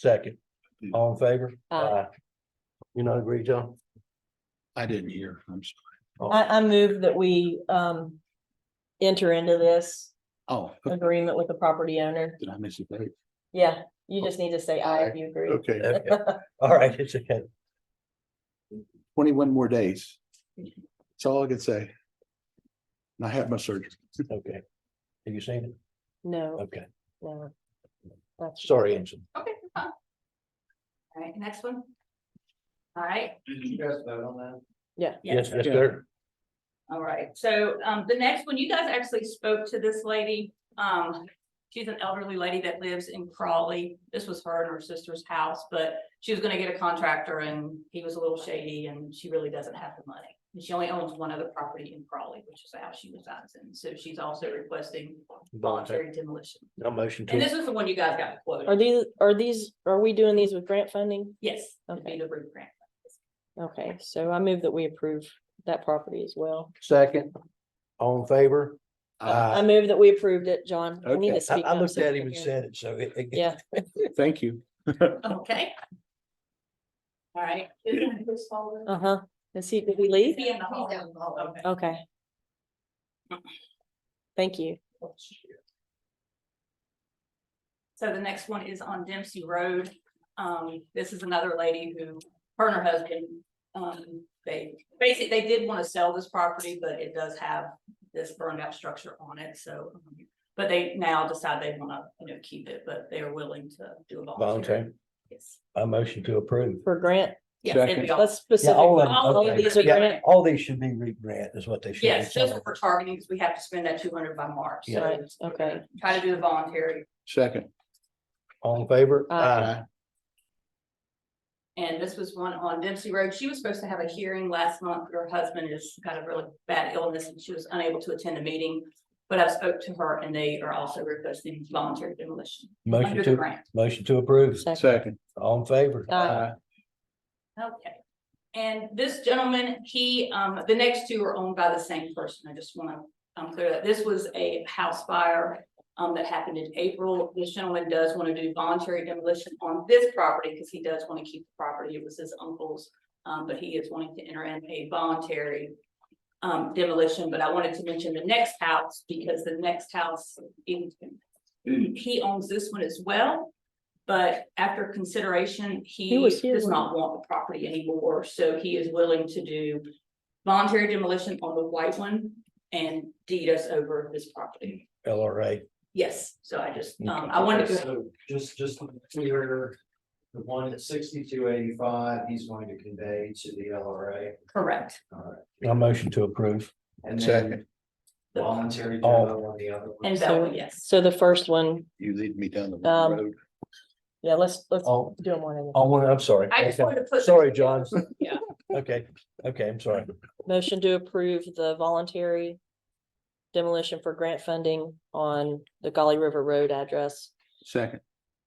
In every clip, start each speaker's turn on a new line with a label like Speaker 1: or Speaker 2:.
Speaker 1: Second. All in favor?
Speaker 2: Aye.
Speaker 1: You not agree, John?
Speaker 3: I didn't hear, I'm sorry.
Speaker 2: I, I move that we, um, enter into this
Speaker 3: Oh,
Speaker 2: agreement with the property owner.
Speaker 3: did I miss a date? Uh,
Speaker 2: Yeah, you just need to say aye if you agree.
Speaker 3: Okay,
Speaker 1: Okay. All right, it's okay.
Speaker 3: twenty-one more days. That's all I can say. And I had my surgery.
Speaker 1: Okay. Have you seen it?
Speaker 2: No,
Speaker 1: Okay,
Speaker 2: no. That's-
Speaker 1: sorry, Anson.
Speaker 4: Okay. fine. All right, next one. All right,
Speaker 5: Did you guys vote on that?
Speaker 1: Yes,
Speaker 4: yes,
Speaker 1: yes, sir.
Speaker 4: all right. So um the next one, you guys actually spoke to this lady. Um, she's an elderly lady that lives in Crawley. This was her and her sister's house, but she was gonna get a contractor and he was a little shady and she really doesn't have the money. And she only owns one other property in Crawley, which is the house she resides in. So she's also requesting voluntary demolition.
Speaker 1: No motion
Speaker 4: And
Speaker 1: to,
Speaker 4: this is the one you guys got
Speaker 2: Are
Speaker 4: quoted.
Speaker 2: these, are these, are we doing these with grant funding?
Speaker 4: Yes, it'd be
Speaker 2: Okay.
Speaker 4: the root grant.
Speaker 2: Okay, so I move that we approve that property as well.
Speaker 1: second. All in favor?
Speaker 2: I
Speaker 3: Uh,
Speaker 1: Aye.
Speaker 2: move that we approved it, John. I
Speaker 1: Okay,
Speaker 2: need to
Speaker 1: I,
Speaker 2: speak
Speaker 1: I
Speaker 2: up
Speaker 1: looked
Speaker 2: so
Speaker 1: at
Speaker 2: we
Speaker 1: him and
Speaker 2: can hear.
Speaker 1: said it, so it. it-
Speaker 2: Yeah,
Speaker 3: Thank you.
Speaker 4: Okay. All right.
Speaker 2: uh huh. Is he, did we leave?
Speaker 4: Be in the hall.
Speaker 5: He's out in the hall.
Speaker 4: Okay.
Speaker 2: Okay. Thank you.
Speaker 4: So the next one is on Dempsey Road. Um, this is another lady who, her and her husband, um, they, basically, they did want to sell this property, but it does have this burned out structure on it, so. um, But they now decide they want to, you know, keep it, but they are willing to do a
Speaker 1: Voluntary,
Speaker 4: voluntary. Yes.
Speaker 1: I motion to approve.
Speaker 2: For grant,
Speaker 4: Yes, it'd
Speaker 3: Second.
Speaker 4: be all-
Speaker 2: let's specific.
Speaker 1: all of them,
Speaker 2: All of
Speaker 1: okay.
Speaker 2: these are
Speaker 1: Yeah.
Speaker 2: grant.
Speaker 1: All these should be re-grant is what they should. be.
Speaker 4: yes, that's what we're targeting, because we have to spend that two hundred by March, so.
Speaker 2: Right,
Speaker 4: we're
Speaker 2: okay.
Speaker 4: gonna Try to do the voluntary
Speaker 3: Second.
Speaker 1: All in favor?
Speaker 2: Aye.
Speaker 4: And this was one on Dempsey Road. She was supposed to have a hearing last month, but her husband has got a really bad illness and she was unable to attend the meeting. But I spoke to her and they are also requesting voluntary demolition
Speaker 1: Motion
Speaker 4: under the
Speaker 1: to,
Speaker 4: grant.
Speaker 1: motion to approve.
Speaker 2: Second.
Speaker 3: Second.
Speaker 1: All in favor?
Speaker 2: Aye.
Speaker 4: Okay. And this gentleman, he, um, the next two are owned by the same person. I just want to, um, clear that this was a house fire. Um, that happened in April. This gentleman does want to do voluntary demolition on this property because he does want to keep the property. It was his uncle's. Um, but he is wanting to enter in a voluntary. Um, demolition, but I wanted to mention the next house because the next house. in- He owns this one as well. But after consideration,
Speaker 2: He
Speaker 4: he
Speaker 2: was here
Speaker 4: does
Speaker 2: when-
Speaker 4: not want the property anymore, so he is willing to do. Voluntary demolition on the white one and deed us over this property.
Speaker 1: LRA.
Speaker 4: Yes, so I just, um,
Speaker 1: Okay.
Speaker 4: I wanted to,
Speaker 5: So just, just to be clear, the one at sixty-two eighty-five, he's going to convey to the LRA.
Speaker 4: correct.
Speaker 5: Alright.
Speaker 1: I motion to approve.
Speaker 5: And
Speaker 3: Second.
Speaker 5: then voluntary
Speaker 1: All.
Speaker 5: demo on the other. one.
Speaker 4: And
Speaker 2: So-
Speaker 4: Bella, yes.
Speaker 2: So the first one,
Speaker 3: You lead me down the
Speaker 2: Um,
Speaker 3: road.
Speaker 2: yeah, let's, let's
Speaker 1: All,
Speaker 2: do them one at a
Speaker 1: all one, I'm sorry.
Speaker 4: I just wanted to put.
Speaker 1: Sorry, John.
Speaker 4: Yeah.
Speaker 1: Okay, okay, I'm sorry.
Speaker 2: Motion to approve the voluntary demolition for grant funding on the Golly River Road address.
Speaker 3: Second.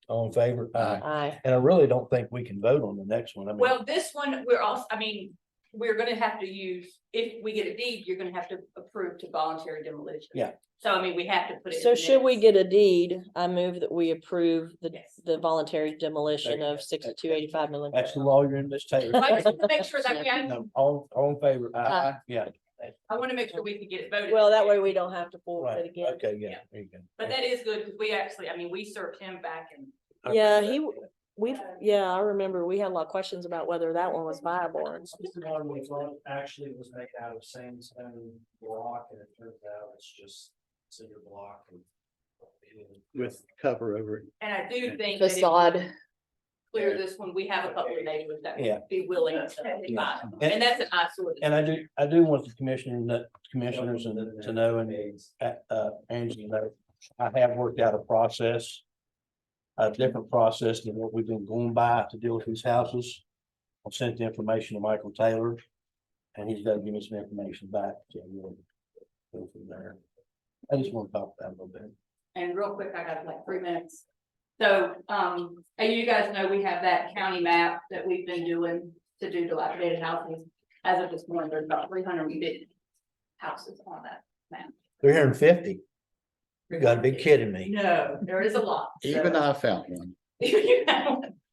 Speaker 1: All in favor?
Speaker 3: Aye.
Speaker 2: Aye.
Speaker 1: And I really don't think we can vote on the next one. I mean,
Speaker 4: Well, this one, we're also, I mean, we're gonna have to use, if we get a deed, you're gonna have to approve to voluntary demolition.
Speaker 1: Yeah.
Speaker 4: So I mean, we have to put it.
Speaker 2: So should we get a deed? I move that we approve the,
Speaker 4: Yes.
Speaker 2: the voluntary demolition of sixty-two eighty-five Midland.
Speaker 1: that's the
Speaker 2: Road.
Speaker 1: lawyer in this table.
Speaker 4: I just wanna make sure that we, I
Speaker 1: No, All, all in favor? Aye. Yeah,
Speaker 4: wanna make sure we can get it voted.
Speaker 2: Well, that way we don't have to forward
Speaker 1: right.
Speaker 2: it again.
Speaker 1: Okay, yeah,
Speaker 4: Yeah.
Speaker 1: there you go.
Speaker 4: But that is good, because we actually, I mean, we served him back and
Speaker 1: Okay.
Speaker 2: Yeah, he, we, yeah, I remember we had a lot of questions about whether that one was viable. and-
Speaker 5: This one we thought actually was made out of sandstone block and it turns out it's just cinder block and.
Speaker 3: With cover over it.
Speaker 4: And I do think that if we
Speaker 2: Facade.
Speaker 4: clear this one, we have a couple of neighbors that
Speaker 1: Yeah.
Speaker 4: would be willing to buy
Speaker 1: Yeah.
Speaker 4: it.
Speaker 1: And-
Speaker 4: And that's an eyesore.
Speaker 1: And I do, I do want the commissioner, to- commissioners and to know and uh, uh, Angie, you know, I have worked out a process. A different process than what we've been going by to deal with these houses. I've sent the information to Michael Taylor. And he's gonna give me some information back. so we'll Go from there. I just want to talk about it a little bit.
Speaker 4: And real quick, I got like three minutes. So, um, and you guys know we have that county map that we've been doing to do dilapidated houses. As of this morning, there's about three hundred and fifty houses on that map.
Speaker 1: Three hundred and fifty. You gotta be kidding me.
Speaker 4: No, there is a lot.
Speaker 3: Even I found one.
Speaker 4: You know?